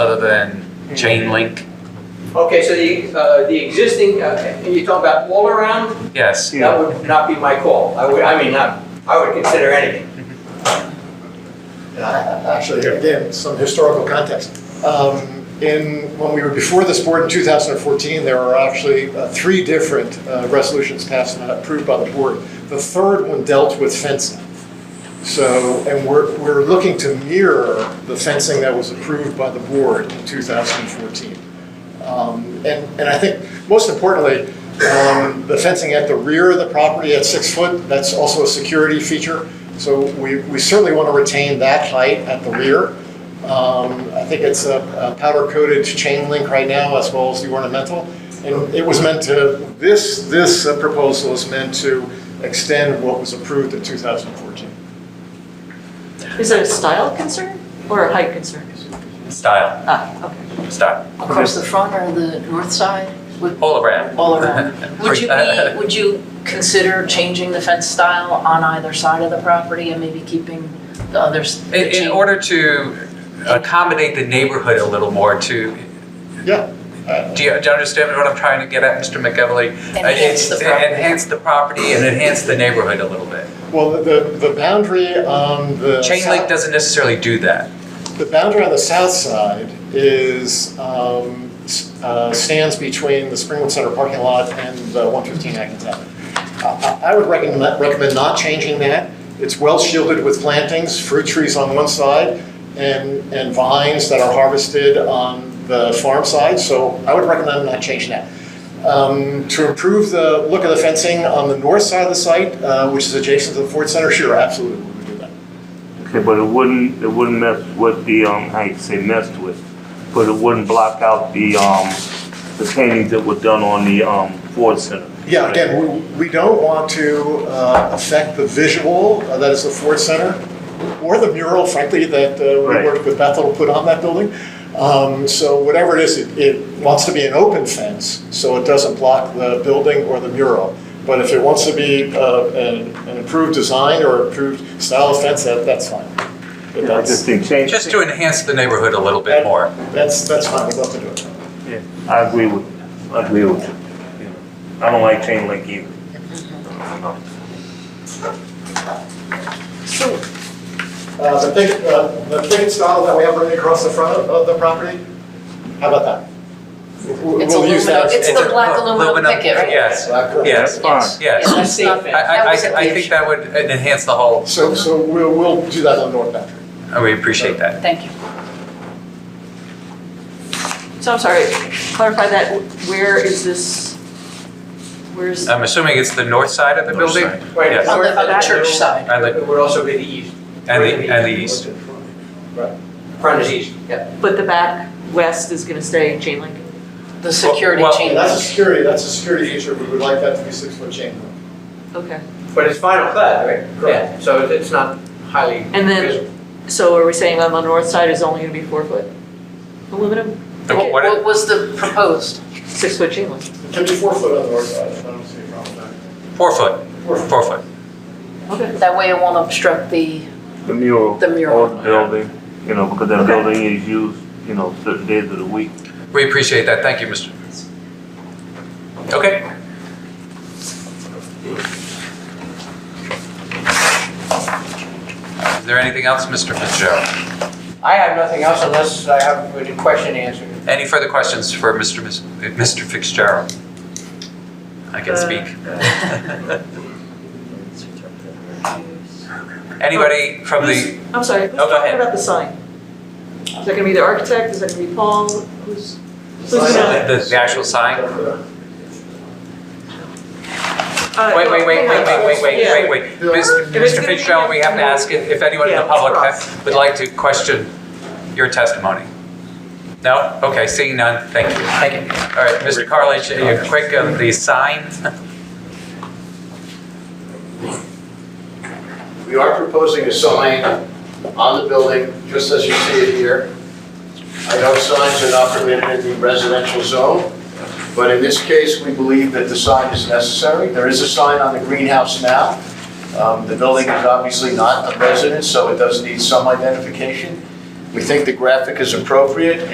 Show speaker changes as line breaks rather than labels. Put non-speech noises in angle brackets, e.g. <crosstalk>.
other than chain link?
Okay, so the, uh, the existing, uh, you're talking about all around?
Yes,
That would not be my call. I would, I mean, I, I would consider anything.
And I- Actually, again, some historical context. Um, In, when we were before this board in 2014, there were actually uh, three different uh, resolutions passed and approved by the board. The third one dealt with fencing. So, and we're, we're looking to mirror the fencing that was approved by the board in 2014. Um, And, and I think, most importantly, um, the fencing at the rear of the property at six foot, that's also a security feature. So we, we certainly want to retain that height at the rear. Um, I think it's a a powder-coated chain link right now, as well as the ornamental. And it was meant to, this, this uh, proposal is meant to extend what was approved in 2014.
Is it a style concern or a height concern?
style,
Ah, okay.
style,
Across the front or the north side? Would
all around.
All
<laughs>
around. would you
uh,
be, would you consider changing the fence style on either side of the property and maybe keeping the others?
<laughs>
the
In, in
chain-
order to accommodate the neighborhood a little more to,
Yeah. uh,
do you, do you understand what I'm trying to get at, Mr. McEvely?
Enhance the
It's-
property.
Enhance the property and enhance the neighborhood a little bit.
Well, the, the boundary on the.
Chain
south-
link doesn't necessarily do that.
The boundary on the south side is, um, s- uh, stands between the Springwood Center parking lot and uh, 115 Atkins Avenue. I- I I would recommend, recommend not changing that. It's well shielded with plantings, fruit trees on one side, and, and vines that are harvested on the farm side, so I would recommend not changing that. Um, To improve the look of the fencing on the north side of the site, uh, which is adjacent to the Ford Center, sure, absolutely, we would do that.
Okay, but it wouldn't, it wouldn't mess with the, um, I hate to say messed with, but it wouldn't block out the, um, the paintings that were done on the, um, Ford Center.
Yeah, again, we, we don't want to uh, affect the visual uh, that is the Ford Center or the mural, frankly, that uh, we
Right.
worked with Bethel to put on that building. Um, So whatever it is, it, it wants to be an open fence, so it doesn't block the building or the mural. But if it wants to be uh, an, an improved design or improved style of fence, that, that's fine. But
I just
that's,
think change,
Just to enhance the neighborhood a little bit more.
that's, that's fine, we'd love to do it.
yeah, I agree with, you. I agree with you. I don't like chain link either.
Uh, The big, uh, the big style that we have running across the front of- of the property, how about that? We'll
It's
we'll use that.
aluminum. It's the
a
black aluminum picket, right?
Yes, yes,
Yes.
yes.
Yeah, that's not-
I, I,
that
I
was a
I think that would enhance the whole,
So, so we'll, we'll do that on the north boundary.
and we appreciate that.
Thank you.
So I'm sorry, clarify that, where is this, where's,
I'm assuming it's the north side of the
North
building?
Right,
Yes.
On the, on the
That-
church side.
And the,
It would also be the east.
and the, and the east.
Front is east, yeah.
but the back west is gonna stay chain link?
The security
well,
chain.
That's a security, that's a security issue, we would like that to be six-foot chain link.
Okay,
But it's final clad, right?
Correct.
Yeah, So it's not highly
And then-
visible.
so are we saying on the north side is only gonna be four foot aluminum,
The what- what-
What was the proposed?
six foot chain link?
It can be four foot on the north side, I don't see a problem with
Four foot,
that. Four foot.
four foot.
Okay,
That way it won't obstruct the,
The mural.
The mural.
Or the building, you know, because that building is used, you know, certain days of the week.
We appreciate that, thank you, Mr. Okay, is there anything else, Mr. Fitzgerald?
I have nothing else unless I have a question answered.
Any further questions for Mr. Mis- Mr. Fitzgerald? I can speak. Anybody from the,
I'm sorry, who's
No, go
talking
ahead.
about the sign? Is that gonna be the architect, is that gonna be Paul, who's, who's gonna?
the the actual sign?
uh,
Wait, wait, wait,
hang
wait,
on.
wait, wait,
Yeah.
wait, wait, wait. Mr.
If it's
Mr.
gonna be
Fitzgerald, we have to ask if if anyone in the
Yeah,
public
it's
ha- would like to question your testimony. No? Okay, seeing none, thank you. Thank you. All right, Mr. Carlich, are you quick on the sign?
We are proposing a sign on the building, just as you see it here. I know signs are not permitted in the residential zone, but in this case, we believe that the sign is necessary. There is a sign on the greenhouse now. Um, The building is obviously not a residence, so it does need some identification. We think the graphic is appropriate.